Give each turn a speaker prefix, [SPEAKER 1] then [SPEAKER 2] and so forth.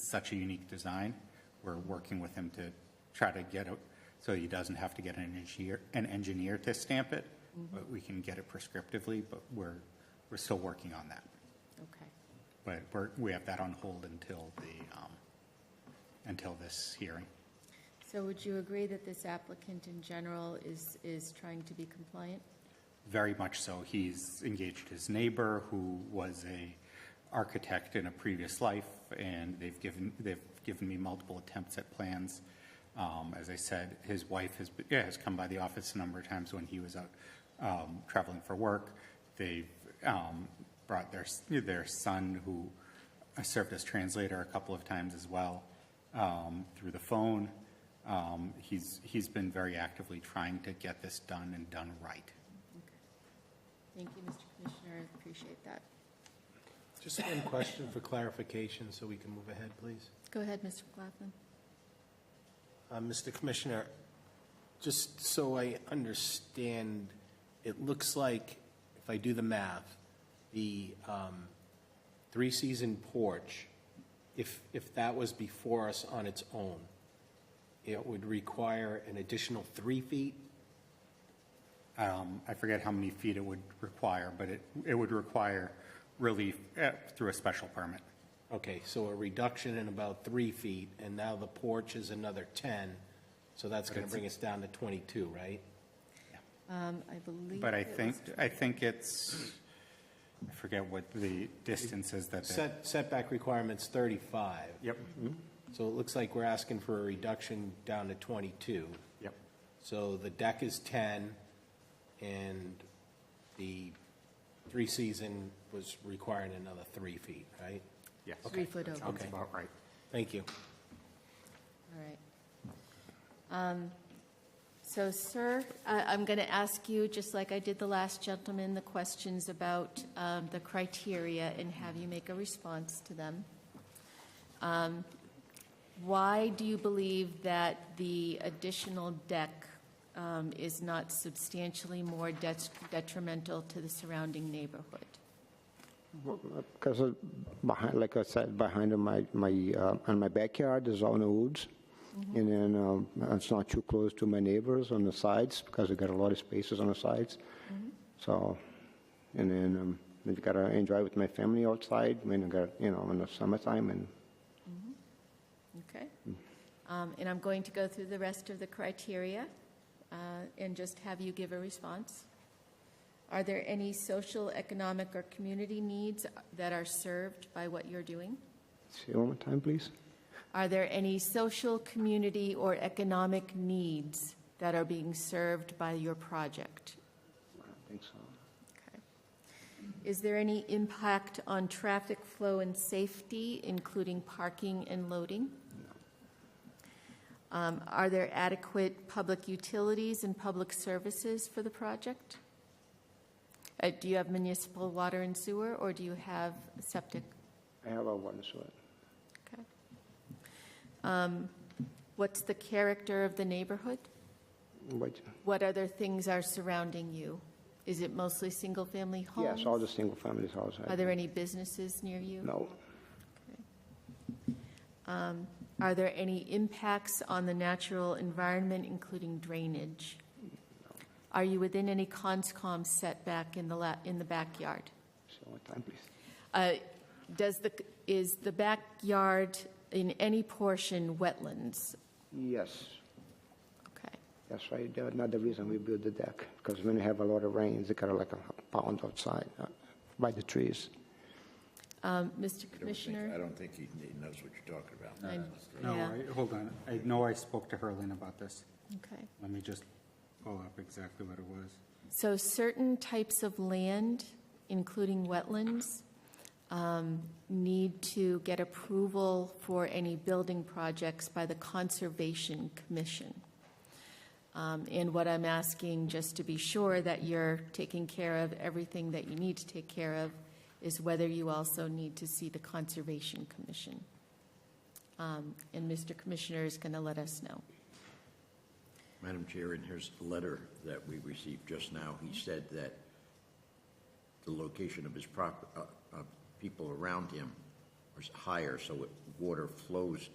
[SPEAKER 1] such a unique design. We're working with him to try to get it so he doesn't have to get an engineer, an engineer to stamp it, but we can get it prescriptively, but we're, we're still working on that.
[SPEAKER 2] Okay.
[SPEAKER 1] But we're, we have that on hold until the, um, until this hearing.
[SPEAKER 2] So would you agree that this applicant in general is, is trying to be compliant?
[SPEAKER 1] Very much so. He's engaged his neighbor, who was a architect in a previous life, and they've given, they've given me multiple attempts at plans. Um, As I said, his wife has, been- yeah, has come by the office a number of times when he was out um, traveling for work. They've um, brought their, s- their son, who uh, served as translator a couple of times as well, um, through the phone. Um, He's, he's been very actively trying to get this done and done right.
[SPEAKER 2] Thank you, Mr. Commissioner, I appreciate that.
[SPEAKER 3] Just one question for clarification, so we can move ahead, please.
[SPEAKER 2] Go ahead, Mr. McLaughlin.
[SPEAKER 3] Uh, Mr. Commissioner, just so I understand, it looks like, if I do the math, the um, three-season porch, if, if that was before us on its own, it would require an additional three feet?
[SPEAKER 1] Um, I forget how many feet it would require, but it, it would require relief eh, through a special permit.
[SPEAKER 3] Okay, so a reduction in about three feet, and now the porch is another 10, so that's going to
[SPEAKER 1] it's-
[SPEAKER 3] bring us down to 22, right?
[SPEAKER 2] Um, I believe.
[SPEAKER 1] But I
[SPEAKER 2] it was-
[SPEAKER 1] think, I think it's, I forget what the distance is that they.
[SPEAKER 3] Set, setback requirement's 35,
[SPEAKER 1] Yep, mm-hmm,
[SPEAKER 3] so it looks like we're asking for a reduction down to 22.
[SPEAKER 1] yep,
[SPEAKER 3] So the deck is 10, and the three-season was requiring another three feet, right?
[SPEAKER 1] yes.
[SPEAKER 2] Three foot over.
[SPEAKER 1] That's about right.
[SPEAKER 3] Thank you.
[SPEAKER 2] All right. Um, So, sir, I- I'm going to ask you, just like I did the last gentleman, the questions about um, the criteria and have you make a response to them. Um, Why do you believe that the additional deck um, is not substantially more det- detrimental to the surrounding neighborhood?
[SPEAKER 4] Because behind, like I said, behind my, my, uh, on my backyard is all in the woods.
[SPEAKER 2] Mm-hmm.
[SPEAKER 4] And then um, it's not too close to my neighbors on the sides because they got a lot of spaces on the sides.
[SPEAKER 2] Mm-hmm.
[SPEAKER 4] So, and then um, I gotta enjoy with my family outside when I got, you know, in the summertime and
[SPEAKER 2] Okay. Um, And I'm going to go through the rest of the criteria uh, and just have you give a response. Are there any social, economic, or community needs that are served by what you're doing?
[SPEAKER 4] say one more time, please.
[SPEAKER 2] Are there any social, community, or economic needs that are being served by your project?
[SPEAKER 4] I don't think so.
[SPEAKER 2] Okay. Is there any impact on traffic flow and safety, including parking and loading? Um, Are there adequate public utilities and public services for the project? Uh, Do you have municipal water and sewer, or do you have septic?
[SPEAKER 4] I have a water source.
[SPEAKER 2] Okay. Um, What's the character of the neighborhood?
[SPEAKER 4] But
[SPEAKER 2] What other things are surrounding you? Is it mostly single-family homes?
[SPEAKER 4] yes, all the single families outside.
[SPEAKER 2] Are there any businesses near you?
[SPEAKER 4] No,
[SPEAKER 2] Um, Are there any impacts on the natural environment, including drainage? Are you within any conscom setback in the, la- in the backyard?
[SPEAKER 4] say one more time, please.
[SPEAKER 2] Uh, Does the, is the backyard in any portion wetlands?
[SPEAKER 4] Yes.
[SPEAKER 2] Okay,
[SPEAKER 4] That's right, That's another reason we built the deck, because when you have a lot of rains, it got like a pound outside uh, by the trees.
[SPEAKER 2] Um, Mr.
[SPEAKER 5] I don't think- I
[SPEAKER 2] Commissioner?
[SPEAKER 5] don't think he he knows what you're talking about.
[SPEAKER 2] I-
[SPEAKER 1] No,
[SPEAKER 2] yeah,
[SPEAKER 1] I- hold on. I know I spoke to Herlin about this.
[SPEAKER 2] Okay.
[SPEAKER 1] Let me just pull up exactly what it was.
[SPEAKER 2] So certain types of land, including wetlands, um, need to get approval for any building projects by the Conservation Commission. Um, And what I'm asking, just to be sure that you're taking care of everything that you need to take care of, is whether you also need to see the Conservation Commission. Um, And Mr. Commissioner is going to let us know.
[SPEAKER 5] Madam Chair, in his letter that we received just now, he said that the location of his prop, uh, uh, people around him or higher, so it, water flows